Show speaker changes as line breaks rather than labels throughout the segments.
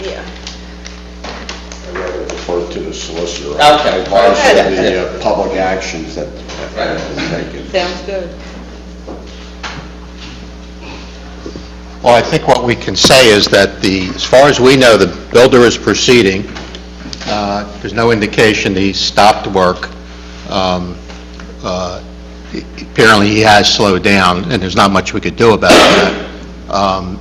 Yeah.
I'd rather defer to the solicitor.
Okay.
Advice of
Okay.
the uh, public actions that that is taken.
Sounds good.
Well, I think what we can say is that the, as far as we know, the builder is proceeding. Uh, There's no indication he stopped work. Um, uh, he- Apparently, he has slowed down, and there's not much we could do about that. Um,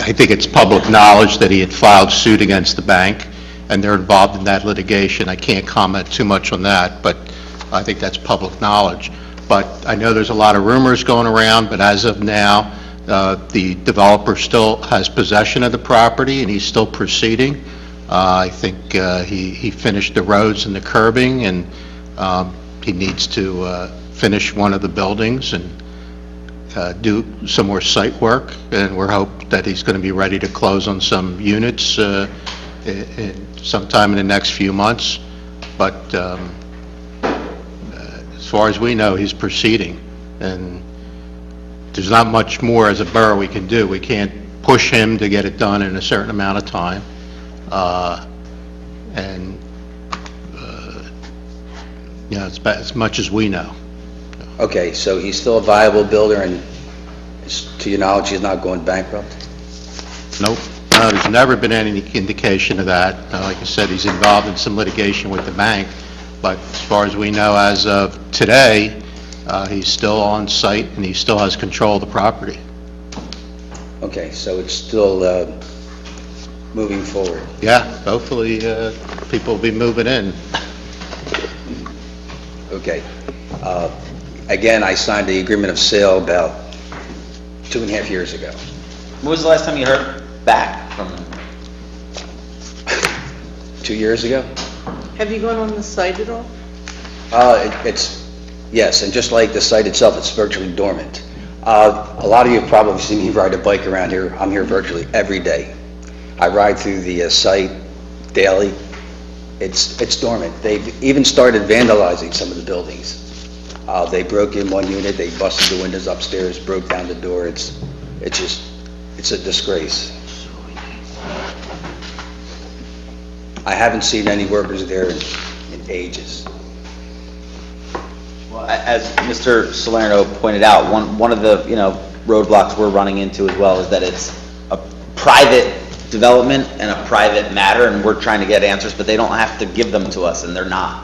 I think it's public knowledge that he had filed suit against the bank, and they're involved in that litigation. I can't comment too much on that, but I think that's public knowledge. But I know there's a lot of rumors going around, but as of now, uh, the developer still has possession of the property, and he's still proceeding. Uh, I think uh, he he finished the roads and the curbing, and um, he needs to uh, finish one of the buildings, and uh, do some more site work, and we're hope that he's going to be ready to close on some units uh, i- i- sometime in the next few months, but um, uh, as far as we know, he's proceeding, and there's not much more as a borough we can do. We can't push him to get it done in a certain amount of time, Uh, and, uh, you know, it's about as much as we know.
Okay, so he's still a viable builder, and s- to your knowledge, he's not going bankrupt?
Nope. No, there's never been any indication of that. Uh, Like I said, he's involved in some litigation with the bank, but as far as we know, as of today, uh, he's still on site and he still has control of the property.
Okay, so it's still uh, moving forward.
Yeah, hopefully, uh, people will be moving in.
Okay. Uh, Again, I signed the agreement of sale about two and a half years ago.
When was the last time you heard back from them?
Two years ago?
Have you gone on the site at all?
Uh, it- It's, yes, and just like the site itself, it's virtually dormant. Uh, A lot of you have probably seen me ride a bike around here. I'm here virtually every day. I ride through the uh, site daily. It's it's dormant. They've even started vandalizing some of the buildings. Uh, They broke in one unit, they busted the windows upstairs, broke down the door. It's, it's just, it's a disgrace. I haven't seen any workers there in in ages.
Well, a- as Mr. Salerno pointed out, one, one of the, you know, roadblocks we're running into as well is that it's a private development and a private matter, and we're trying to get answers, but they don't have to give them to us, and they're not.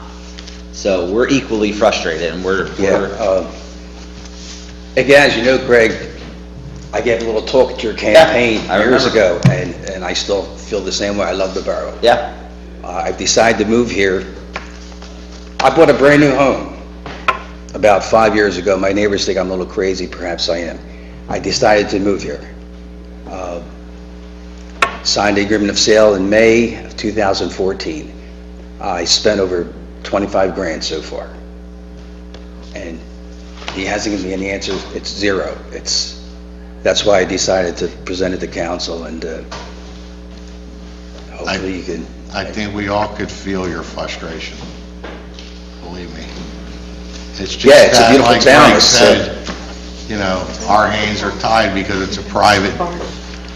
So we're equally frustrated, and we're,
Yeah,
we're,
uh,
uh,
again, as you know, Greg, I gave a little talk at your campaign
I
years
remember.
ago, and, and I still feel the same way, I love the borough.
yeah.
Uh, I decided to move here. I bought a brand-new home about five years ago. My neighbors think I'm a little crazy, perhaps I am. I decided to move here. Uh, Signed the agreement of sale in May of 2014. I spent over 25 grand so far. And he hasn't given me any answers. It's zero. It's, that's why I decided to present it to council, and uh, hopefully you can...
I think we all could feel your frustration, believe me. It's just
Yeah, it's a
that,
beautiful
like
town,
Mike
it's, uh,
said, you know, our hands are tied because it's a private,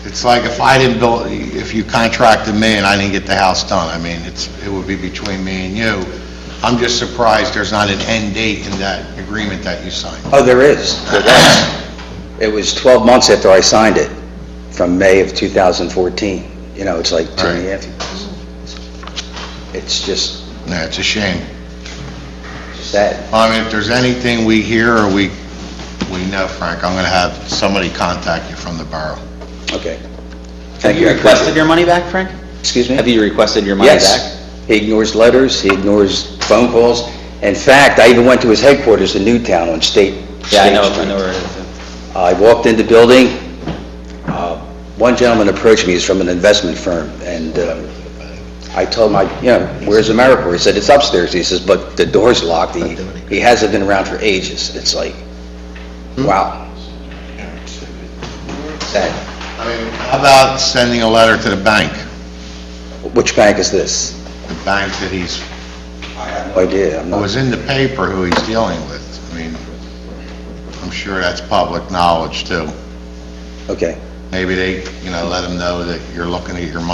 it's like if I didn't build, if you contracted me and I didn't get the house done, I mean, it's, it would be between me and you. I'm just surprised there's not an end date in that agreement that you signed.
Oh, there is, there was. It was 12 months after I signed it, from May of 2014. You know, it's like two and a half years. It's just
Yeah, it's a shame.
sad.
I mean, if there's anything we hear or we, we know, Frank, I'm going to have somebody contact you from the borough.
Okay.
Have
Thank
you
I
requested your money back, Frank?
Excuse me?
Have you requested your money back?
Yes. He ignores letters, he ignores phone calls. In fact, I even went to his headquarters in Newtown on State
Yeah, I
State
know, I
Street.
know where it is.
I walked in the building, uh, one gentleman approached me, he's from an investment firm, and um, I told him, I- you know, "Where's AmeriCorps?" He said, "It's upstairs." He says, "But the door's locked, he he hasn't been around for ages." It's like, wow. Sad.
I mean, How about sending a letter to the bank,
Which bank is this?
the bank that he's,
No idea, I'm
Oh,
who was
not,
in the paper who he's dealing with? I mean, I'm sure that's public knowledge, too.
okay.
Maybe they, you know, let him know that you're looking at your money